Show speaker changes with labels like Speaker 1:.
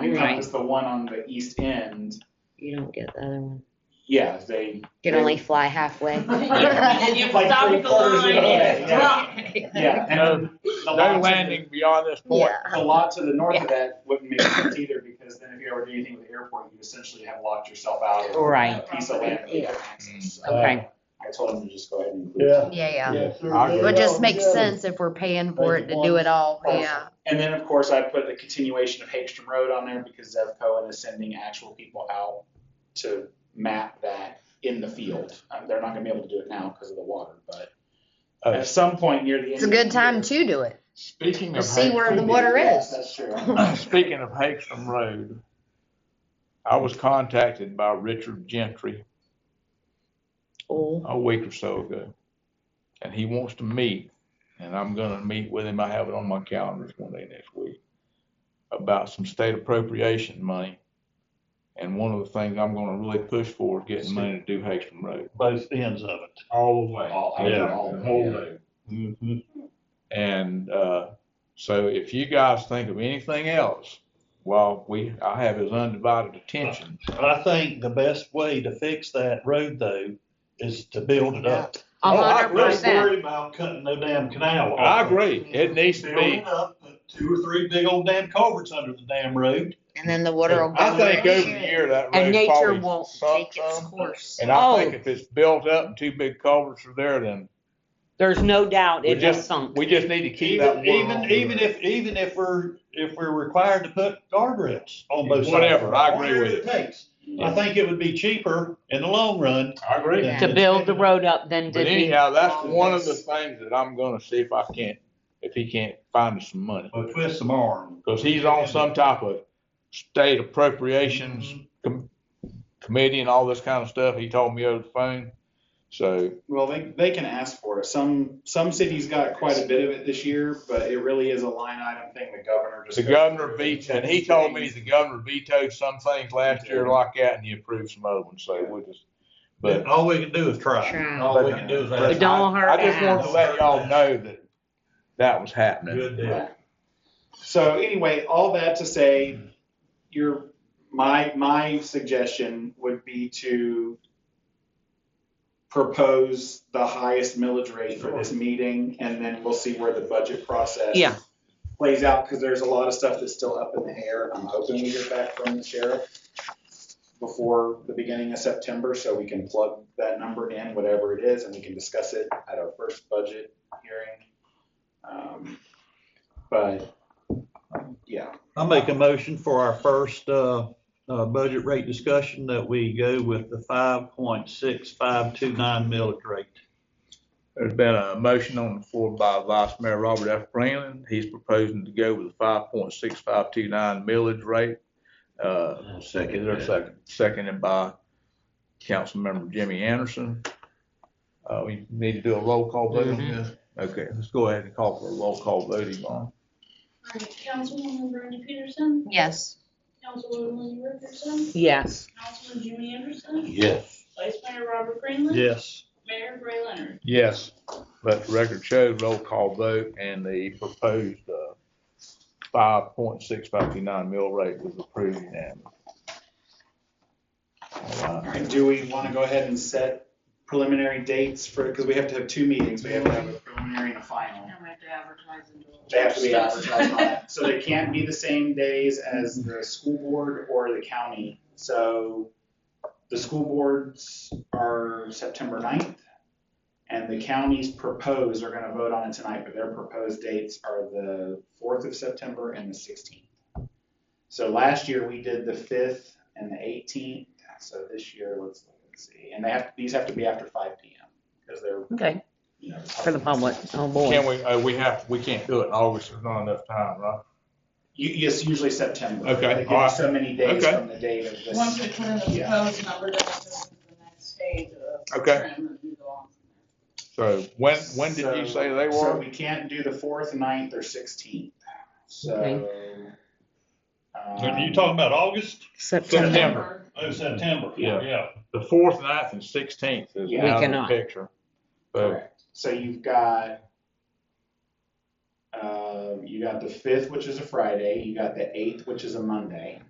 Speaker 1: You're
Speaker 2: not
Speaker 1: right.
Speaker 2: just the one on the east end.
Speaker 1: You don't get the other one.
Speaker 2: Yeah, they.
Speaker 1: You can only fly halfway.
Speaker 3: You stop
Speaker 2: three
Speaker 3: at the
Speaker 2: quarters of the
Speaker 3: line
Speaker 2: way,
Speaker 3: and
Speaker 2: Yeah,
Speaker 3: drop.
Speaker 2: yeah, and the lot to
Speaker 4: No
Speaker 2: the-
Speaker 4: landing beyond this point.
Speaker 1: Yeah.
Speaker 2: The lot to the north of that wouldn't make sense either, because then if you ever do anything with the airport, you essentially have locked yourself out of
Speaker 1: Right.
Speaker 2: a piece of land. that you have
Speaker 1: Yeah.
Speaker 2: access. So
Speaker 1: Okay.
Speaker 2: I told him to just go ahead and. include
Speaker 5: Yeah.
Speaker 2: it.
Speaker 1: Yeah, yeah.
Speaker 5: Yeah, sure.
Speaker 4: I'll
Speaker 1: Well, it just makes
Speaker 5: Yeah.
Speaker 1: sense if we're paying for it
Speaker 5: Make it
Speaker 1: to do it all,
Speaker 2: one.
Speaker 1: yeah.
Speaker 2: And then, of course, I put the continuation of Hagstrom Road on there because Zev Cohen is sending actual people out to map that in the field. Um, They're not gonna be able to do it now because of the water, but
Speaker 4: Oh.
Speaker 2: at some point near the end.
Speaker 1: It's a good time to do it.
Speaker 4: Speaking
Speaker 1: To
Speaker 4: of
Speaker 1: see where the
Speaker 4: Hagstrom,
Speaker 1: water
Speaker 2: Yes,
Speaker 1: is.
Speaker 2: That's true.
Speaker 4: speaking of Hagstrom Road, I was contacted by Richard Gentry
Speaker 1: Oh,
Speaker 4: a week or so ago, and he wants to meet, and I'm gonna meet with him. I have it on my calendar it's one day next week about some state appropriation money. And one of the things I'm gonna really push for is getting money to do Hagstrom Road.
Speaker 5: Both ends of it.
Speaker 4: All the way.
Speaker 2: All- all-
Speaker 4: Yeah,
Speaker 2: all-
Speaker 4: the whole road.
Speaker 5: Mhm.
Speaker 4: And uh, so if you guys think of anything else, well, we, I have his undivided attention.
Speaker 5: I think the best way to fix that road though is to build it up.
Speaker 1: a
Speaker 4: Oh, I
Speaker 1: hundred
Speaker 4: agree.
Speaker 5: Let's
Speaker 1: percent.
Speaker 5: worry about cutting no damn canal. off.
Speaker 4: I agree. It needs to
Speaker 5: Build
Speaker 4: be.
Speaker 5: it up, put two or three big old damn culverts under the damn road.
Speaker 1: And then the water will go.
Speaker 4: I think
Speaker 1: where it
Speaker 4: over the
Speaker 1: should.
Speaker 4: year that
Speaker 1: And
Speaker 4: road
Speaker 1: nature
Speaker 4: probably
Speaker 1: won't
Speaker 4: sunk
Speaker 1: take its
Speaker 4: some.
Speaker 1: course.
Speaker 4: And I think
Speaker 6: Oh.
Speaker 4: if it's built up and two big culverts are there, then
Speaker 6: There's no doubt
Speaker 4: We
Speaker 6: it
Speaker 4: just-
Speaker 6: has sunk.
Speaker 4: we just need to keep that
Speaker 5: Even,
Speaker 4: water on
Speaker 5: even,
Speaker 4: the
Speaker 5: even
Speaker 4: road.
Speaker 5: if, even if we're, if we're required to put guardrails on both sides.
Speaker 4: Whatever, I agree with
Speaker 5: Whatever it takes. I
Speaker 4: Yeah.
Speaker 5: think it would be cheaper in the long run.
Speaker 4: I agree.
Speaker 5: than-
Speaker 6: To build the road up than to
Speaker 4: But
Speaker 6: be,
Speaker 4: anyhow, that's one of the things that I'm gonna see if I can't, if he can't find us some money.
Speaker 5: Or twist some arm.
Speaker 4: Because he's on some type of state appropriations com- committee and all this kind of stuff. He told me over the phone. So,
Speaker 2: Well, they, they can ask for it. Some, some cities got quite a bit of it this year, but it really is a line item thing the governor just.
Speaker 4: the
Speaker 2: goes
Speaker 4: governor
Speaker 2: through.
Speaker 4: vetoed, and he told me the governor vetoed some things last year like that and he approved some other ones. So we'll just, but
Speaker 5: All we can do is try.
Speaker 1: Try.
Speaker 5: All we can do is
Speaker 6: But
Speaker 5: ask.
Speaker 6: don't hurt
Speaker 4: I just
Speaker 6: the
Speaker 4: wanted to
Speaker 6: house.
Speaker 4: let y'all know that that was happening.
Speaker 5: Good deal.
Speaker 2: So anyway, all that to say, your, my, my suggestion would be to propose the highest millage rate for this meeting, and then we'll see where the budget process
Speaker 6: Yeah.
Speaker 2: plays out, because there's a lot of stuff that's still up in the air. I'm hoping we get back from the sheriff before the beginning of September, so we can plug that number in, whatever it is, and we can discuss it at our first budget hearing. Um, But, yeah.
Speaker 5: I make a motion for our first, uh, uh, budget rate discussion that we go with the five point six five two nine millage rate.
Speaker 4: There's been a motion on the floor by Vice Mayor Robert F. Breland. He's proposing to go with a five point six five two nine millage rate. Uh, Is there a second? Seconded by Councilmember Jimmy Anderson. Uh, we need to do a roll call vote on this? Okay, let's go ahead and call for a roll call vote, Yvonne.
Speaker 7: All right, Councilwoman Brenda Peterson,
Speaker 1: Yes.
Speaker 7: Councilwoman Lenny Richardson,
Speaker 6: Yes.
Speaker 7: Councilman Jimmy Anderson,
Speaker 5: Yes.
Speaker 7: Vice Mayor Robert Greenland,
Speaker 5: Yes.
Speaker 7: Mayor Gray Leonard.
Speaker 4: Yes. Let the record show, roll call vote, and the proposed, uh, five point six five two nine mill rate was approved unanimously. All
Speaker 2: All
Speaker 4: right.
Speaker 2: right, Uh, do we want to go ahead and set preliminary dates for, because we have to have two meetings, we have to have a preliminary and a final.
Speaker 7: we have to advertise and do
Speaker 2: They have to be advertised on it, so they can't be the same days as the school board or the county. So the school boards are September 9th, and the counties proposed, are going to vote on it tonight, but their proposed dates are the fourth of September and the sixteenth. So last year, we did the fifth and the eighteenth, so this year, let's look and see, and they have, these have to be after five P M, because they're,
Speaker 6: Okay.
Speaker 2: you know.
Speaker 6: For the public. Oh,
Speaker 4: Can
Speaker 6: boy.
Speaker 4: we, uh, we have, we can't do it in August, there's not enough time, right?
Speaker 2: U- Yes, usually September. They
Speaker 4: Okay,
Speaker 2: give you
Speaker 4: alright.
Speaker 2: so many days
Speaker 4: Okay.
Speaker 2: from the date of this.
Speaker 3: Once we put in the
Speaker 2: Yeah.
Speaker 3: proposed number, then we'll move to the next stage of.
Speaker 4: Okay.
Speaker 3: trim and we go on from there.
Speaker 4: So when, when did you say they
Speaker 2: So- So
Speaker 4: were?
Speaker 2: we can't do the fourth, ninth, or sixteenth, so.
Speaker 5: Are you
Speaker 2: um,
Speaker 5: talking about August?
Speaker 1: September.
Speaker 5: Oh, September.
Speaker 4: Yeah.
Speaker 5: Yeah.
Speaker 4: The fourth, ninth, and sixteenth is
Speaker 2: We
Speaker 4: out of the
Speaker 6: cannot.
Speaker 4: picture. So
Speaker 2: Correct, so you've got, uh, you got the fifth, which is a Friday, you got the eighth, which is a Monday.